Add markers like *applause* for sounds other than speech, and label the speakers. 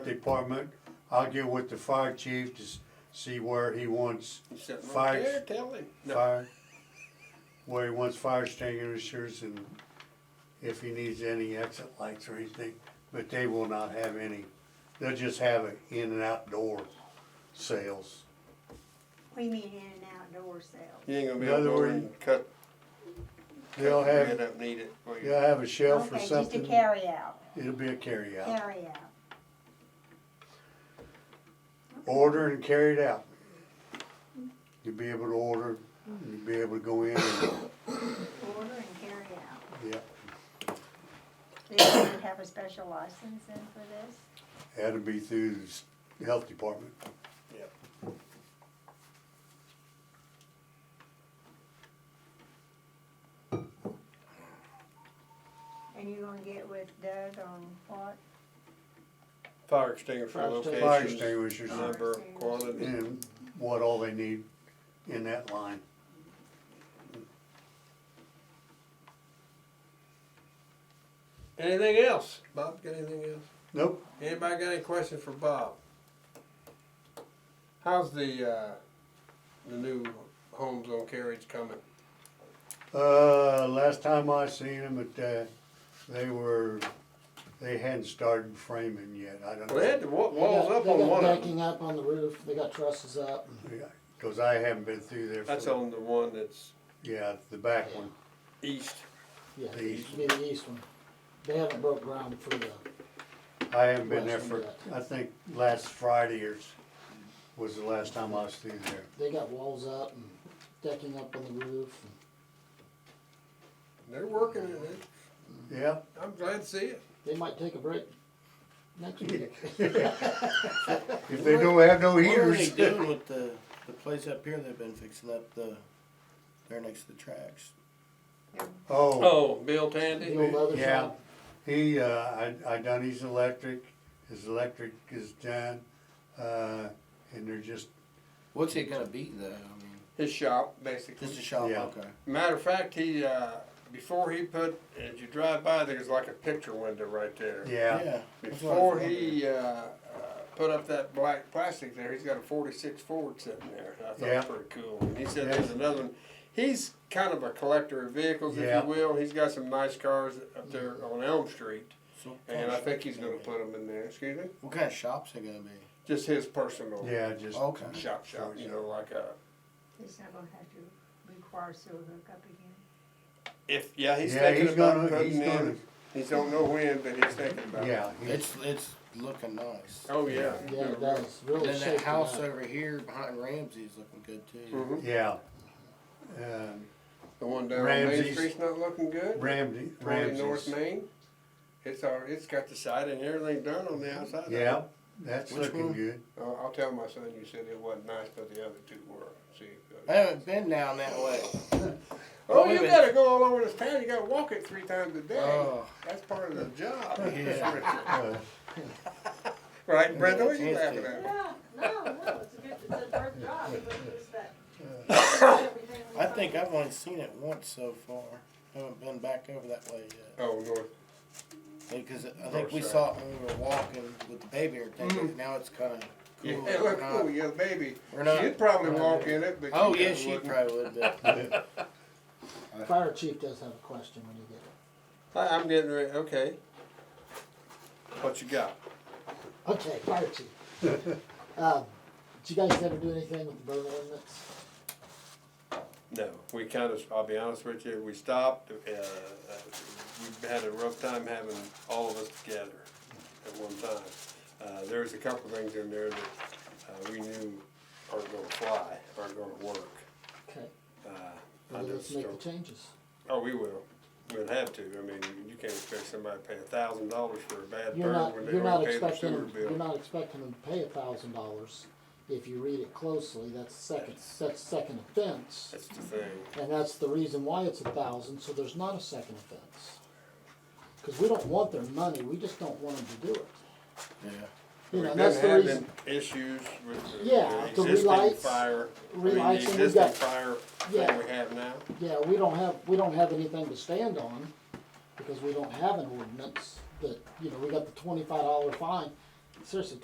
Speaker 1: department, I'll get with the fire chief to s- see where he wants
Speaker 2: Sitting right
Speaker 1: Five.
Speaker 2: there, tell him. No,
Speaker 1: fire, where he wants fire extinguishers and if he needs any exit lights or anything, but they will not have any. They'll just have it in and outdoor sales.
Speaker 3: We mean in an outdoor sale.
Speaker 2: You ain't gonna be
Speaker 1: In
Speaker 2: able to
Speaker 1: other
Speaker 2: go
Speaker 1: words,
Speaker 2: and cut,
Speaker 1: They'll
Speaker 2: cut the red
Speaker 1: have,
Speaker 2: up, need it. will you?
Speaker 1: they'll have a shelf or
Speaker 3: Okay, just a
Speaker 1: something.
Speaker 3: carry out,
Speaker 1: It'll be a carryout.
Speaker 3: carry out.
Speaker 1: Order and carry it out. You'll be able to order, you'll be able to go in and, *coughs*
Speaker 3: Order and carry out.
Speaker 1: yeah,
Speaker 3: They would have a special license in for this?
Speaker 1: that'll be through the s- health department.
Speaker 3: And you gonna get with Doug on what?
Speaker 2: Fire extinguisher
Speaker 4: Fire
Speaker 2: locations.
Speaker 1: Fire extinguishers.
Speaker 2: Number,
Speaker 3: Fire
Speaker 2: quantity.
Speaker 1: and what all they need in that line.
Speaker 2: Anything else? Bob, got anything else?
Speaker 1: Nope,
Speaker 2: Anybody got any questions for Bob? How's the, uh, the new homes on carriage coming?
Speaker 1: uh, last time I seen them, at uh, they were, they hadn't started framing yet, I don't
Speaker 2: Well, they had
Speaker 1: know.
Speaker 2: the wa-
Speaker 4: They
Speaker 2: walls
Speaker 4: got-
Speaker 2: up on one
Speaker 4: They got
Speaker 2: of them.
Speaker 4: decking up on the roof, they got trusses up.
Speaker 1: Yeah, Cause I haven't been through there.
Speaker 2: That's
Speaker 1: for-
Speaker 2: on the one that's
Speaker 1: Yeah, the back one,
Speaker 2: east.
Speaker 4: Yeah,
Speaker 1: The east
Speaker 4: it'd be the east one. They haven't broke ground for the,
Speaker 1: I haven't been there
Speaker 4: Last one
Speaker 1: for,
Speaker 4: yet.
Speaker 1: I think last Friday or s- was the last time I was through there.
Speaker 4: they got walls up and decking up on the roof.
Speaker 2: They're working in it.
Speaker 1: Yeah,
Speaker 2: I'm glad to see it.
Speaker 4: They might take a break
Speaker 2: *laughs*
Speaker 4: next week.
Speaker 1: if they don't have no
Speaker 5: What are they
Speaker 1: heaters.
Speaker 5: doing with the, the place up here they've been fixing up the, there next to the tracks?
Speaker 1: Oh,
Speaker 2: Oh, Bill Tandy?
Speaker 4: The old leather
Speaker 1: yeah.
Speaker 4: shop.
Speaker 1: He, uh, I, I done his electric, his electric is done, uh, and they're just
Speaker 5: What's it gonna be though, I mean,
Speaker 2: His shop, basically.
Speaker 5: just a shop,
Speaker 1: Yeah.
Speaker 5: okay.
Speaker 2: Matter of fact, he, uh, before he put, as you drive by, there's like a picture window right there.
Speaker 1: Yeah,
Speaker 5: that's what I
Speaker 2: Before
Speaker 5: was
Speaker 2: he, uh, uh, put up that black plastic there, he's got a forty-six Ford sitting there, I thought
Speaker 1: Yeah.
Speaker 2: was pretty cool. And he said there's another one, he's kind of a collector of vehicles, if
Speaker 1: Yeah.
Speaker 2: you will, he's got some nice cars up there on Elm Street.
Speaker 5: So-
Speaker 2: And I think he's gonna put them in there, excuse me,
Speaker 5: What kind of shops they gonna be?
Speaker 2: just his personal
Speaker 1: yeah, just,
Speaker 2: Oh,
Speaker 5: Okay.
Speaker 2: shop shop, you know, like a,
Speaker 3: It's not gonna have to require sewer hookup again?
Speaker 2: if, yeah, he's
Speaker 1: yeah,
Speaker 2: thinking
Speaker 1: he's
Speaker 2: about
Speaker 1: gonna, he's
Speaker 2: putting
Speaker 1: gonna,
Speaker 2: in, he don't know when, but he's thinking about it.
Speaker 1: yeah. he-
Speaker 5: It's, it's looking nice.
Speaker 2: Oh, yeah.
Speaker 4: Yeah, it does, really
Speaker 5: Then that
Speaker 4: shaking
Speaker 5: house
Speaker 4: up.
Speaker 5: over here behind Ramsey's looking good too.
Speaker 2: Mhm.
Speaker 1: Yeah. Um,
Speaker 2: The one down on Main
Speaker 1: Ramsey's.
Speaker 2: Street's not looking good.
Speaker 1: Ramsey,
Speaker 2: The one in North
Speaker 1: Ramsey's,
Speaker 2: Main. It's all, it's got the siding and everything done on the outside. of it.
Speaker 1: yeah, that's
Speaker 5: Which
Speaker 1: looking
Speaker 2: *laughs*
Speaker 5: one?
Speaker 1: good.
Speaker 2: Uh, I'll tell my son you said it wasn't nice, but the other two were. See.
Speaker 5: I haven't been down that way.
Speaker 2: Oh,
Speaker 5: wait a
Speaker 2: you
Speaker 5: minute.
Speaker 2: gotta go all over this town. You gotta walk it three times a day.
Speaker 5: Oh,
Speaker 2: That's part of the job.
Speaker 5: *laughs* Yeah.
Speaker 1: Uh,
Speaker 2: *laughs* Right, Brenda, what are you laughing at?
Speaker 6: Yeah, no, no, it's a good, it's a hard job, but it's that. everything we
Speaker 5: I
Speaker 6: find.
Speaker 5: think I've only seen it once so far. Haven't been back over that way yet.
Speaker 2: Oh, North.
Speaker 5: Because I think we
Speaker 2: Northside.
Speaker 5: saw it when we were walking with the baby and everything, but now it's kind of
Speaker 2: Yeah,
Speaker 5: cool.
Speaker 2: look,
Speaker 5: We're
Speaker 2: oh,
Speaker 5: not-
Speaker 2: yeah, baby.
Speaker 5: we're not-
Speaker 2: She'd probably
Speaker 5: we're not
Speaker 2: walk
Speaker 5: doing-
Speaker 2: in it, but.
Speaker 5: Oh,
Speaker 2: you
Speaker 5: yeah,
Speaker 2: guys
Speaker 5: she
Speaker 2: wouldn't.
Speaker 5: probably would, but *laughs*
Speaker 4: Fire chief does have a question when you get it.
Speaker 2: I, I'm getting ready, okay. What you got?
Speaker 4: Okay, fire chief.
Speaker 2: *laughs*
Speaker 4: Um, Did you guys ever do anything with the burn ordinance?
Speaker 2: No, we kind of, I'll be honest with you, we stopped, uh, uh, we had a rough time having all of us together at one time. Uh, there was a couple things in there that, uh, we knew aren't gonna fly, aren't gonna work.
Speaker 4: Okay,
Speaker 2: Uh, I
Speaker 4: well, then let's
Speaker 2: just
Speaker 4: make the
Speaker 2: don't,
Speaker 4: changes.
Speaker 2: oh, we will, we'd have to, I mean, you can't expect somebody to pay a thousand dollars for a bad
Speaker 4: You're not,
Speaker 2: burn when they
Speaker 4: you're not
Speaker 2: don't pay their
Speaker 4: expecting,
Speaker 2: sewer
Speaker 4: them-
Speaker 2: bill.
Speaker 4: you're not expecting them to pay a thousand dollars. If you read it closely, that's second, that's second offense,
Speaker 2: That's the thing,
Speaker 4: and that's the reason why it's a thousand, so there's not a second offense. Cause we don't want their money, we just don't want them to do it.
Speaker 5: yeah.
Speaker 4: You
Speaker 2: we've
Speaker 4: know,
Speaker 2: been
Speaker 4: and that's the
Speaker 2: having
Speaker 4: reason,
Speaker 2: issues with the-
Speaker 4: Yeah, the
Speaker 2: the existing
Speaker 4: relights,
Speaker 2: fire, I mean, the
Speaker 4: relights, and we
Speaker 2: existing
Speaker 4: got-
Speaker 2: fire
Speaker 4: Yeah.
Speaker 2: thing we have now.
Speaker 4: yeah, we don't have, we don't have anything to stand on, because we don't have an ordinance that, you know, we got the twenty-five dollar fine. seriously,